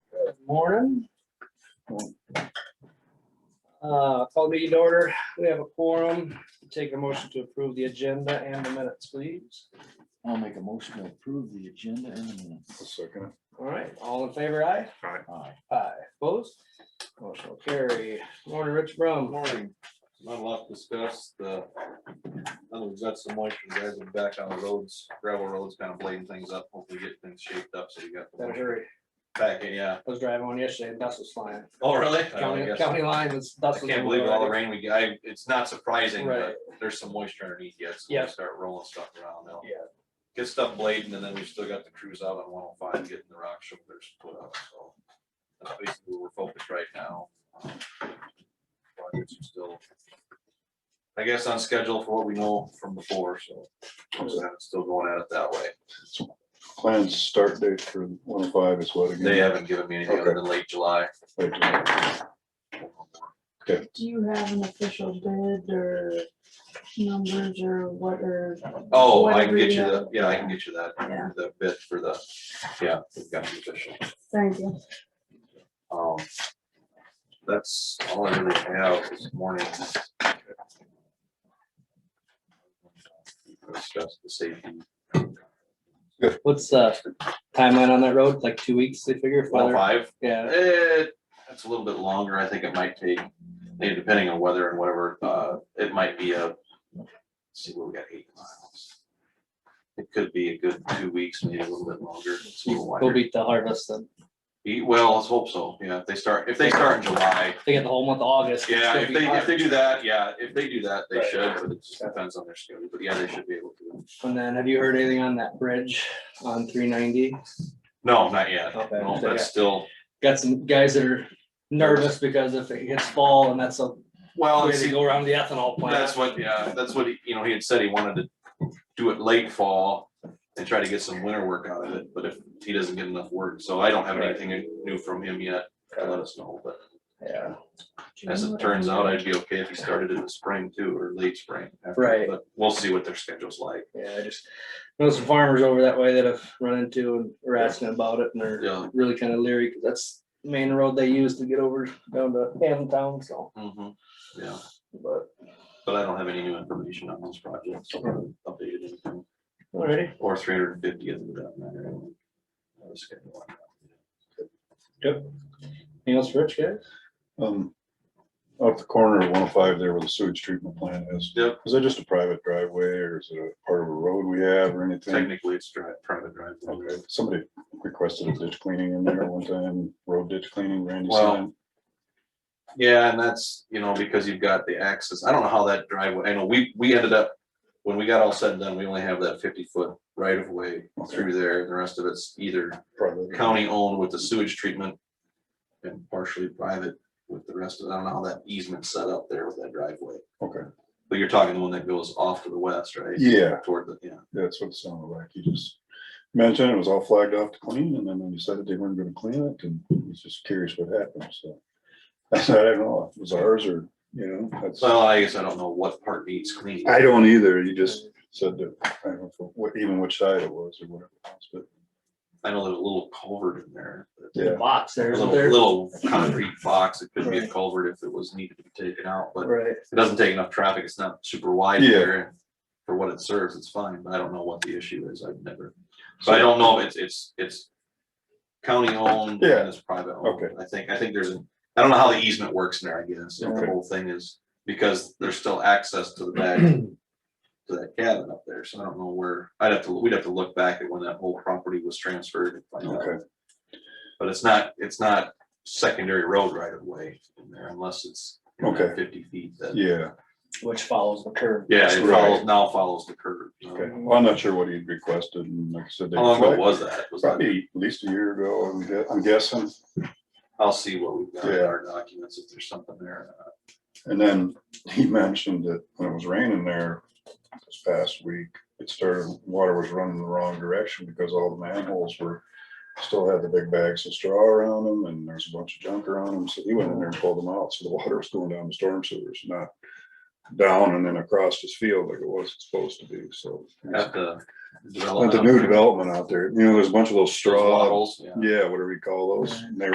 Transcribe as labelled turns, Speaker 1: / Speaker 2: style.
Speaker 1: morning. Uh, Call meeting to order. We have a quorum. Take a motion to approve the agenda and the minutes, please.
Speaker 2: I'll make a motion to approve the agenda and the minutes.
Speaker 3: Second.
Speaker 1: All right, all in favor, aye?
Speaker 2: Aye.
Speaker 1: Aye. Opposed? Motion will carry. Morning, Rich Brown.
Speaker 4: Morning, not a lot to discuss. the, other we've got some moisture, guys are back on the roads, gravel roads, kind of blading things up, hopefully get things shaped up, so you got the
Speaker 1: That was
Speaker 4: moisture
Speaker 1: hurry.
Speaker 4: back, in, yeah.
Speaker 1: I was driving one yesterday and dust was flying.
Speaker 4: Oh, really?
Speaker 2: Uh,
Speaker 1: County,
Speaker 4: I
Speaker 1: county line was.
Speaker 4: I can't believe all the rain we got, I- it's not surprising,
Speaker 1: Right.
Speaker 4: but there's some moisture underneath yet, so
Speaker 1: Yeah.
Speaker 4: we start rolling stuff around now.
Speaker 1: Yeah.
Speaker 4: Get stuff blading, and then we still got the crews out on one oh five, getting the rock shoulders put up, so. That's basically where we're focused right now. Um, Projects are still. I guess on schedule for what we know from before, so it's still going at it that way.
Speaker 3: Plans start date for one oh five is what again?
Speaker 4: They haven't given me anything other
Speaker 3: Okay.
Speaker 4: than late July.
Speaker 3: Like,
Speaker 5: Do you have an official bid or numbers or what are?
Speaker 4: Oh, I
Speaker 5: whatever
Speaker 4: can get you the,
Speaker 5: have?
Speaker 4: yeah, I can get you that,
Speaker 5: Yeah.
Speaker 4: the bid for the, yeah, we've got the official.
Speaker 5: Thank you.
Speaker 4: Um, That's all I really have this morning. Discuss the safety.
Speaker 1: What's the timeline on that road? Like two weeks, they figure? if
Speaker 4: Well,
Speaker 1: weather-
Speaker 4: five,
Speaker 1: Yeah,
Speaker 4: eh, that's a little bit longer. I think it might take, maybe depending on weather and whatever, uh, it might be a, let's see, what we got eight miles. It could be a good two weeks, maybe a little bit longer. It's a little
Speaker 1: we'll
Speaker 4: wider.
Speaker 1: beat the harvest then.
Speaker 4: Eh, Well, let's hope so. Yeah, if they start, if they start in July,
Speaker 1: They get the whole month of August. it's
Speaker 4: Yeah,
Speaker 1: gonna
Speaker 4: if
Speaker 1: be
Speaker 4: they, if
Speaker 1: hard.
Speaker 4: they do that, yeah, if they do that, they
Speaker 1: Right.
Speaker 4: should, but it just depends on their schedule, but yeah, they should be able to.
Speaker 1: And then have you heard anything on that bridge on three ninety?
Speaker 4: No, not yet.
Speaker 1: Okay.
Speaker 4: No, that's still,
Speaker 1: Got some guys that are nervous because if it hits fall and that's a
Speaker 4: well,
Speaker 1: way
Speaker 4: it's-
Speaker 1: to go around the ethanol plant.
Speaker 4: that's what, yeah, that's what, he- you know, he had said he wanted to do it late fall and try to get some winter work out of it, but if he doesn't get enough work, so I don't have
Speaker 1: Right.
Speaker 4: anything new from him yet. to Let us know, but
Speaker 1: Yeah,
Speaker 4: as it turns out, I'd be okay if he started in the spring too, or late spring. after,
Speaker 1: Right.
Speaker 4: But we'll see what their schedule's like.
Speaker 1: yeah, I just know some farmers over that way that I've run into and are asking about it and they're
Speaker 4: Yeah.
Speaker 1: really kind of leery. 'cause That's the main road they use to get over down to Hammond Town, so,
Speaker 4: Mhm. Yeah.
Speaker 1: but,
Speaker 4: But I don't have any new information on those projects, so I haven't updated anything,
Speaker 1: alrighty.
Speaker 4: or three hundred and fifty isn't that matter. I was gonna go on
Speaker 1: Anything else, Rich, guys?
Speaker 3: Um, up the corner of one oh five there where the sewage treatment plant is.
Speaker 4: Yep.
Speaker 3: Is that just a private driveway or is it a part of a road we have or
Speaker 4: that.
Speaker 3: anything?
Speaker 4: Technically, it's dri- private driveway.
Speaker 3: Okay, Somebody requested a ditch cleaning in there one time, road ditch cleaning, Randy
Speaker 4: Well,
Speaker 3: said.
Speaker 4: Yeah, and that's, you know, because you've got the access, I don't know how that driveway, I know we, we ended up, when we got all said and done, we only have that fifty foot right of way through there, the rest of it's either
Speaker 3: Private.
Speaker 4: county owned with the sewage treatment. And partially private with the rest of, I don't know how that easement set up there with that driveway,
Speaker 3: Okay,
Speaker 4: but you're talking the one that goes off to the west, right?
Speaker 3: yeah,
Speaker 4: Toward the, yeah.
Speaker 3: that's what it sounded like. He just mentioned it was all flagged off to clean and then they decided they weren't gonna clean it and he's just curious what happened, so. I said, I don't know, if it was ours or, you know, that's.
Speaker 4: Well, I guess I don't know what part needs cleaning.
Speaker 3: I don't either. You just said that, I don't know what, even which side it was or whatever. it was, But
Speaker 4: I know there's a little culvert in there.
Speaker 1: The
Speaker 3: Yeah.
Speaker 1: Box there,
Speaker 4: There's a
Speaker 1: isn't there?
Speaker 4: little concrete box. It could be a culvert if it was needed to be taken out, but
Speaker 1: Right,
Speaker 4: it doesn't take enough traffic. It's not super wide
Speaker 3: Yeah.
Speaker 4: there. and For what it serves, it's fine, but I don't know what the issue is. I've never, so I don't know if it's, it's, it's county owned
Speaker 3: Yeah.
Speaker 4: and it's private
Speaker 3: Okay.
Speaker 4: owned. I think, I think there's an, I don't know how the easement works in there, I guess. if The
Speaker 3: Okay.
Speaker 4: whole thing is, because there's still access to the back to that cabin up there, so I don't know where, I'd have to, we'd have to look back at when that whole property was transferred. and find out.
Speaker 3: Okay.
Speaker 4: But it's not, it's not secondary road right of way in there unless it's you know,
Speaker 3: Okay.
Speaker 4: fifty feet that,
Speaker 3: yeah,
Speaker 1: which follows the curve.
Speaker 4: yeah, it
Speaker 3: Right.
Speaker 4: follows, now follows the curve. you know.
Speaker 3: okay. Well, I'm not sure what he'd requested and like I said. they
Speaker 4: How long ago
Speaker 3: flagged-
Speaker 4: was that? Was that,
Speaker 3: Probably at least a year ago, I'm gue- I'm guessing.
Speaker 4: I'll see what we've got in
Speaker 3: Yeah.
Speaker 4: our documents, if there's something there. Uh,
Speaker 3: And then he mentioned that when it was raining there this past week, it started, water was running the wrong direction because all the manholes were, still had the big bags of straw around them and there's a bunch of junk around them. So he went in there and pulled them out. So the water was going down the storm sewers, not down and then across his field like it was supposed to be. So
Speaker 4: At the.
Speaker 3: But
Speaker 4: development
Speaker 3: the
Speaker 4: up
Speaker 3: new uh,
Speaker 4: there,
Speaker 3: development out there, you know, there's a bunch of those
Speaker 4: those
Speaker 3: straw,
Speaker 4: wattles, yeah.
Speaker 3: yeah, whatever you call those. and they